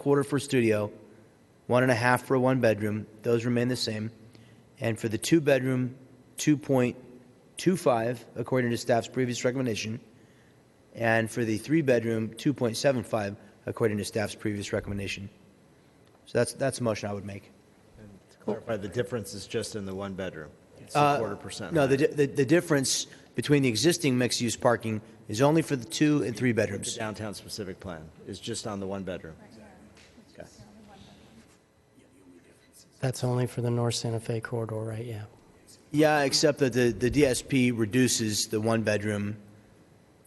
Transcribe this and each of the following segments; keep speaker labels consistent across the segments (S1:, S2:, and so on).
S1: quarter for studio, one and a half for a one bedroom. Those remain the same. And for the two bedroom, 2.25, according to staff's previous recommendation. And for the three bedroom, 2.75, according to staff's previous recommendation. So that's, that's the motion I would make.
S2: To clarify, the difference is just in the one bedroom. It's a
S1: Uh,
S2: quarter percent.
S1: No, the,
S2: higher.
S1: di- the, the difference between the existing mixed-use parking is only for the two and three
S2: The
S1: bedrooms.
S2: downtown specific plan is just on the one bedroom.
S3: That's only for the North Santa Fe corridor, right? Yeah.
S1: Yeah, except that the, the DSP reduces the one-bedroom.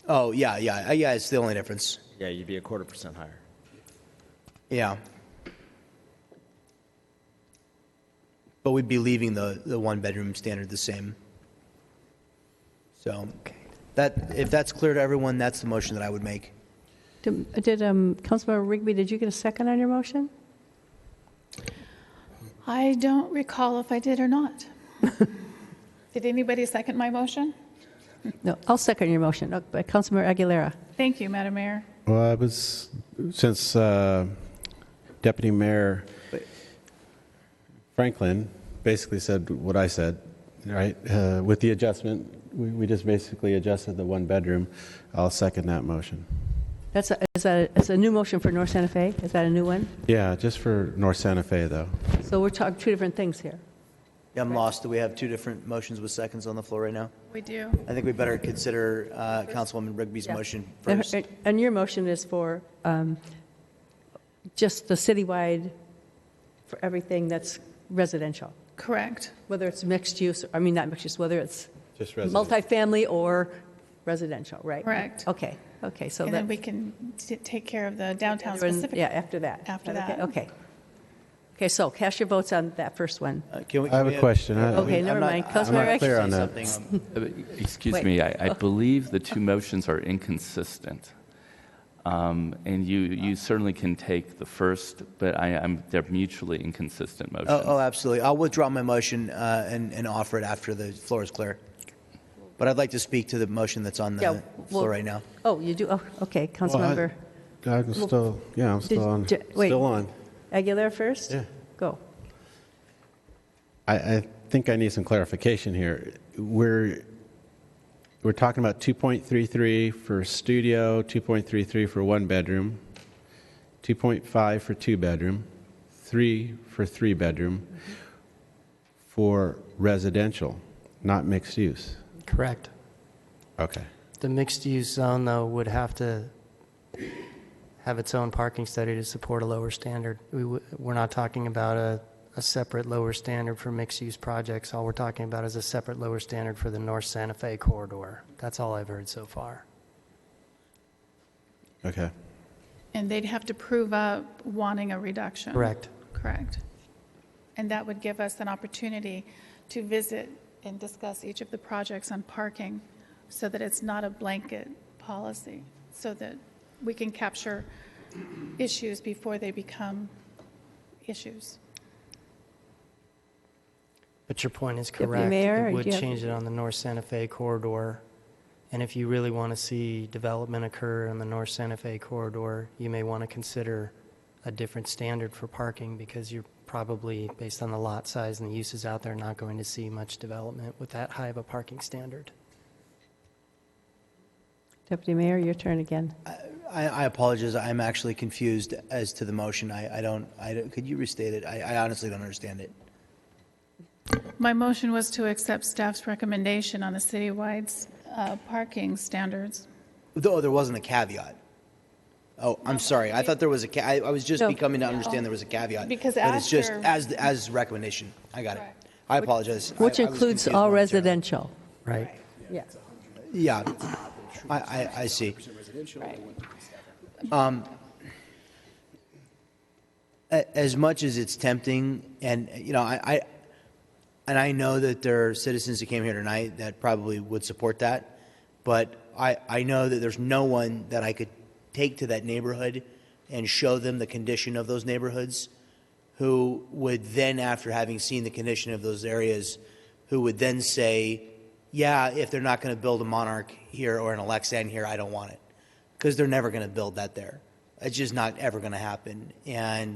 S1: Oh, yeah, yeah, uh, yeah, it's the only difference.
S2: Yeah, you'd be a quarter percent higher.
S1: Yeah. But we'd be leaving the, the one-bedroom standard the same. So, that, if that's clear to everyone, that's the motion that I would make.
S4: Did did, um, Councilmember Rigby, did you get a second on your motion?
S5: I don't recall if I did or not. Did anybody second my motion?
S4: No, I'll second your motion. Uh, by Councilmember Aguilera.
S5: Thank you, Madam Mayor.
S6: Well, I was, since uh, Deputy Mayor Franklin basically said what I said, right, uh, with the adjustment, we we just basically adjusted the one-bedroom, I'll second that motion.
S4: That's, a- is that, it's a new motion for North Santa Fe? Is that a new one?
S6: Yeah, just for North Santa Fe, though.
S4: So we're talking two different things here.
S1: I'm lost. Do we have two different motions with seconds on the floor right now?
S5: We do.
S1: I think we better consider uh, Councilwoman Rigby's motion
S4: And-
S1: first.
S4: Uh, and- And your motion is for um, just the citywide, for everything that's residential,
S5: Correct.
S4: whether it's mixed use, I mean, not mixed use, whether it's
S6: Just
S4: multifamily or residential, right?
S5: Correct.
S4: Okay, okay, so
S5: And then
S4: that.
S5: we can t- take care of the downtown
S4: Everyone-
S5: specific.
S4: Yeah, after that.
S5: After
S4: Is okay?
S5: that.
S4: Okay. Okay, so cast your votes on that first one.
S1: Uh, can we-
S6: I have
S1: can
S6: a
S1: we
S6: question. I-
S1: I'm
S4: Okay, never
S1: not-
S4: mind.
S1: I'm
S6: I'm
S4: Councilmember
S6: not
S4: Aguilera.
S6: clear on that.
S1: something.
S7: Uh, Excuse
S4: Wait.
S7: me, I, I believe the two motions are inconsistent. Um, and you,
S1: Uh.
S7: you certainly can take the first, but I, I'm, they're mutually inconsistent motions.
S1: Oh, oh, absolutely. I'll withdraw my motion uh, and, and offer it after the floor is clear. But I'd like to speak to the motion that's on the
S4: Yeah, well-
S1: floor right now.
S4: Oh, you do, oh, okay, Councilmember
S6: I'm still, yeah, I'm still on,
S4: did- wait.
S6: still on.
S4: Aguilera first?
S6: Yeah.
S4: Go.
S6: I, I think I need some clarification here. We're, we're talking about 2.33 for studio, 2.33 for one bedroom, 2.5 for two bedroom, three for three bedroom, for residential, not mixed use.
S3: Correct.
S6: Okay.
S3: The mixed use zone, though, would have to have its own parking study to support a lower standard. We, w- we're not talking about a, a separate lower standard for mixed use projects. All we're talking about is a separate lower standard for the North Santa Fe corridor. That's all I've heard so far.
S6: Okay.
S5: And they'd have to prove up wanting a reduction.
S3: Correct.
S5: Correct. And that would give us an opportunity to visit and discuss each of the projects on parking so that it's not a blanket policy, so that we can capture issues before they become issues.
S3: But your point is
S4: Deputy
S3: correct.
S4: Mayor,
S3: It
S4: do
S3: would
S4: you have-
S3: change it on the North Santa Fe corridor. And if you really want to see development occur on the North Santa Fe corridor, you may want to consider a different standard for parking because you're probably, based on the lot size and the uses out there, not going to see much development with that high of a parking standard.
S4: Deputy Mayor, your turn again.
S1: I, I apologize. I'm actually confused as to the motion. I, I don't, I don't, could you restate it? I, I honestly don't understand it.
S5: My motion was to accept staff's recommendation on the citywide uh, parking standards.
S1: Though there wasn't a caveat. Oh, I'm sorry. I thought there was a ca, I, I was just
S4: No.
S1: becoming to understand there was a caveat.
S5: Because
S1: But it's just
S5: after-
S1: as, as recommendation. I got it.
S5: Correct.
S1: I apologize. I-
S4: Which
S1: I was
S4: includes
S1: confused
S4: all
S1: momentarily.
S4: residential.
S3: Right.
S4: Yeah.
S1: Yeah, I, I, I see. Um,
S5: Right.
S1: A- As much as it's tempting, and, you know, I, I, and I know that there are citizens that came here tonight that probably would support that, but I, I know that there's no one that I could take to that neighborhood and show them the condition of those neighborhoods who would then, after having seen the condition of those areas, who would then say, yeah, if they're not going to build a Monarch here or an Alexan here, I don't want it. Because they're never going to build that there. It's just not ever going to happen. And